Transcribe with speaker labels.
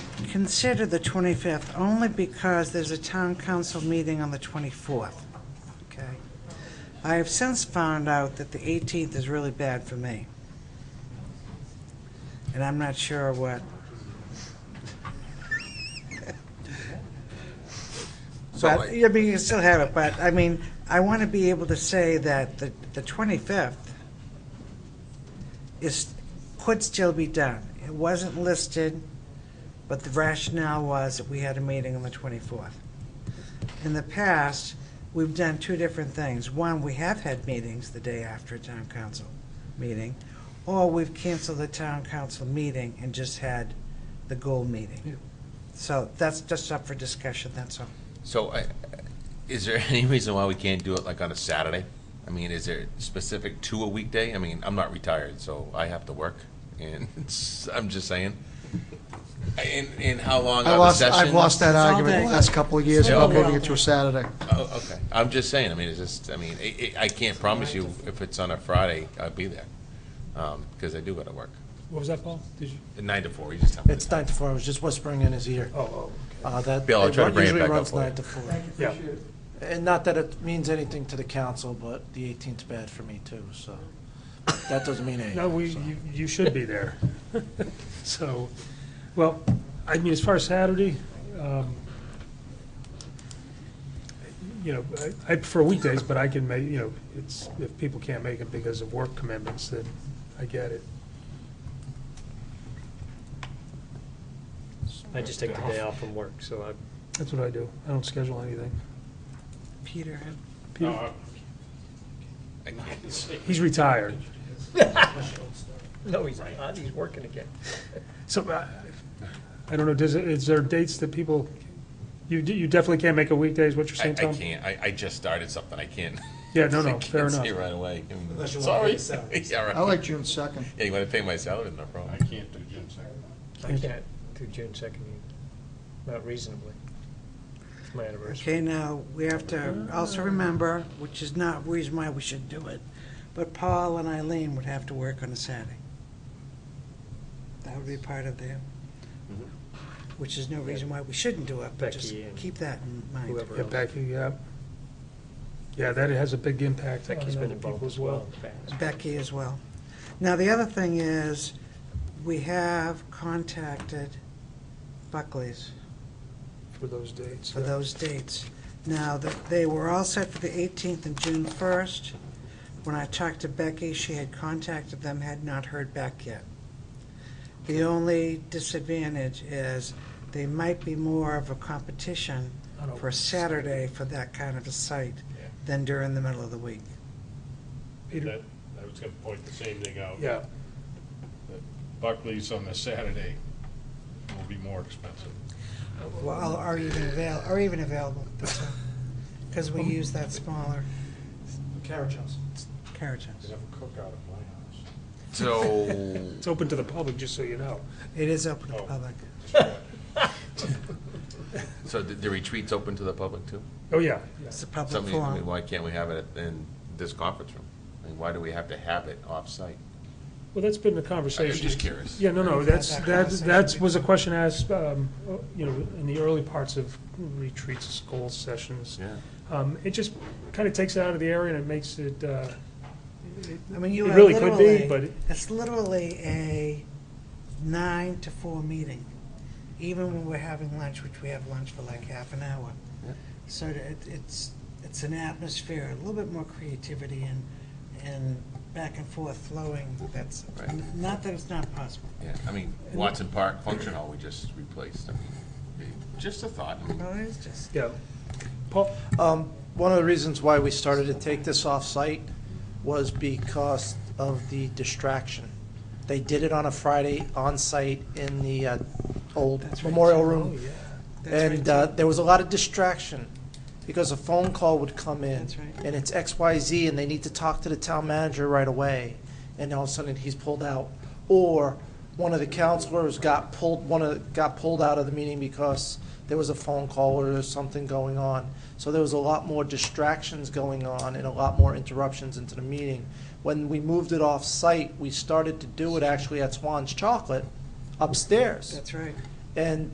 Speaker 1: consider the 25th only because there's a town council meeting on the 24th, okay? I have since found out that the 18th is really bad for me. And I'm not sure what,
Speaker 2: So,
Speaker 1: but,
Speaker 2: I-
Speaker 1: I mean, you still have it, but, I mean, I want to be able to say that the the 25th is, could still be done. It wasn't listed, but the rationale was that we had a meeting on the 24th. In the past, we've done two different things. One, we have had meetings the day after a town council meeting, or we've canceled the town council meeting and just had the goal meeting. So that's just up for discussion, that's all.
Speaker 2: so I- is there any reason why we can't do it like on a Saturday? I mean, is there specific to a weekday? I mean, I'm not retired, so I have to work, and it's- I'm just saying. And, and how long
Speaker 3: I
Speaker 2: are the
Speaker 3: lost,
Speaker 2: sessions?
Speaker 3: I've lost that
Speaker 1: It's all
Speaker 3: argument
Speaker 1: day.
Speaker 3: the last couple of years
Speaker 2: Yeah.
Speaker 3: about
Speaker 2: Okay.
Speaker 3: moving it to a Saturday.
Speaker 2: Oh, okay. I'm just saying, I mean, it's just, I mean, i i I can't promise you if it's on a Friday, I'll be there, because I do gotta work.
Speaker 4: What was that, Paul? Did you?
Speaker 2: Nine to four, you just tell me.
Speaker 5: It's nine to four, I was just whispering in his ear.
Speaker 4: Oh,
Speaker 5: Uh, That
Speaker 2: Bill, I'll try to
Speaker 5: it
Speaker 2: bring it
Speaker 5: usually
Speaker 2: back up
Speaker 5: runs
Speaker 2: for you.
Speaker 5: nine to four.
Speaker 4: yeah.
Speaker 5: And not that it means anything to the council, but the 18th's bad for me too, so that doesn't mean anything.
Speaker 4: No, we,
Speaker 5: so.
Speaker 4: you, you should be there. So, well, I mean, as far as Saturday, um, you know, I I prefer weekdays, but I can make, you know, it's, if people can't make it because of work commitments, then I get it.
Speaker 6: I just take the day off from work, so I,
Speaker 4: That's what I do. I don't schedule anything.
Speaker 1: Peter had
Speaker 4: Peter- He's retired.
Speaker 6: no, he's not, he's working again.
Speaker 4: So, I- I don't know, does, it- is there dates that people, you, d- you definitely can't make a weekday, is what you're
Speaker 2: I, I
Speaker 4: saying, Tom?
Speaker 2: can't, I, I just started something, I can't.
Speaker 4: Yeah, no,
Speaker 2: I
Speaker 4: no, fair
Speaker 2: can't
Speaker 4: enough.
Speaker 2: say right away. I mean,
Speaker 6: Unless you wanna pay
Speaker 2: Sorry.
Speaker 6: yourself.
Speaker 2: Yeah, right.
Speaker 3: I like June 2nd.
Speaker 2: Yeah, you wanna pay my salary, no problem.
Speaker 7: can't do June second.
Speaker 6: I can't do June second either, not reasonably. It's my anniversary.
Speaker 1: Okay, now, we have to also remember, which is not reason why we should do it, but Paul and Eileen would have to work on a Saturday. That would be part of their, which is no reason why we shouldn't do it, but just
Speaker 6: Mm-hmm. Becky and
Speaker 1: keep that in mind.
Speaker 6: Whoever
Speaker 4: Yeah,
Speaker 6: else.
Speaker 4: Becky, yeah. Yeah, that has a big impact on
Speaker 6: Becky's been
Speaker 4: other
Speaker 6: involved
Speaker 4: people
Speaker 6: as
Speaker 4: as
Speaker 6: well
Speaker 4: well.
Speaker 6: in the past.
Speaker 1: Becky as well. Now, the other thing is, we have contacted Buckley's.
Speaker 4: for those dates.
Speaker 1: for those dates. Now, th- they were all set for the 18th and June 1st. When I talked to Becky, she had contacted them, had not heard back yet. The only disadvantage is they might be more of a competition
Speaker 4: I don't-
Speaker 1: for a Saturday for that kind of a site than during the middle of the week.
Speaker 4: Peter?
Speaker 7: I was gonna point the same thing out.
Speaker 4: Yeah,
Speaker 7: Buckley's on a Saturday will be more expensive.
Speaker 1: Well, or even avail, or even available, because we use that smaller
Speaker 5: Carriage house.
Speaker 1: carriage
Speaker 7: They have a cookout at my
Speaker 2: So,
Speaker 4: it's open to the public, just so you know.
Speaker 1: It is open to
Speaker 7: Oh.
Speaker 1: public.
Speaker 7: house.
Speaker 2: so the, the retreat's open to the public too?
Speaker 4: Oh, yeah, yeah.
Speaker 1: It's a public
Speaker 2: Something, I mean,
Speaker 1: forum.
Speaker 2: why can't we have it in this conference room? I mean, why do we have to have it off-site?
Speaker 4: Well, that's been the
Speaker 2: I'm
Speaker 4: conversation.
Speaker 2: just curious.
Speaker 4: Yeah, no, no,
Speaker 1: We've had
Speaker 4: that's,
Speaker 1: that
Speaker 4: that,
Speaker 1: conversation
Speaker 4: that was a
Speaker 1: before.
Speaker 4: question asked, um, you know, in the early parts of retreats, school sessions.
Speaker 2: Yeah.
Speaker 4: Um, It just kind of takes it out of the area and it makes it, uh, it
Speaker 1: I mean, you
Speaker 4: it
Speaker 1: are
Speaker 4: really could be,
Speaker 1: literally-
Speaker 4: but it-
Speaker 1: It's literally a nine to four meeting, even when we're having lunch, which we have lunch for like half an hour.
Speaker 2: Yeah.
Speaker 1: So it, it's, it's an atmosphere, a little bit more creativity and, and back and forth flowing, that's,
Speaker 2: Right.
Speaker 1: n- not that it's not possible.
Speaker 2: Yeah, I mean, Watson Park Function Hall, we just replaced, I mean, just a thought, I mean,
Speaker 1: No, it's just,
Speaker 4: yeah. Paul,
Speaker 5: Um, One of the reasons why we started to take this off-site was because of the distraction. They did it on a Friday on-site in the uh, old
Speaker 1: That's right.
Speaker 5: memorial
Speaker 4: oh,
Speaker 5: room.
Speaker 4: yeah.
Speaker 1: that's right.
Speaker 5: And uh, there was a lot of distraction because a phone call would come in.
Speaker 1: That's right.
Speaker 5: And it's XYZ and they need to talk to the town manager right away. And all of a sudden he's pulled out. Or one of the counselors got pulled, one of, got pulled out of the meeting because there was a phone call or there was something going on. So there was a lot more distractions going on and a lot more interruptions into the meeting. When we moved it off-site, we started to do it actually at Swan's Chocolate upstairs.
Speaker 1: That's right.
Speaker 5: And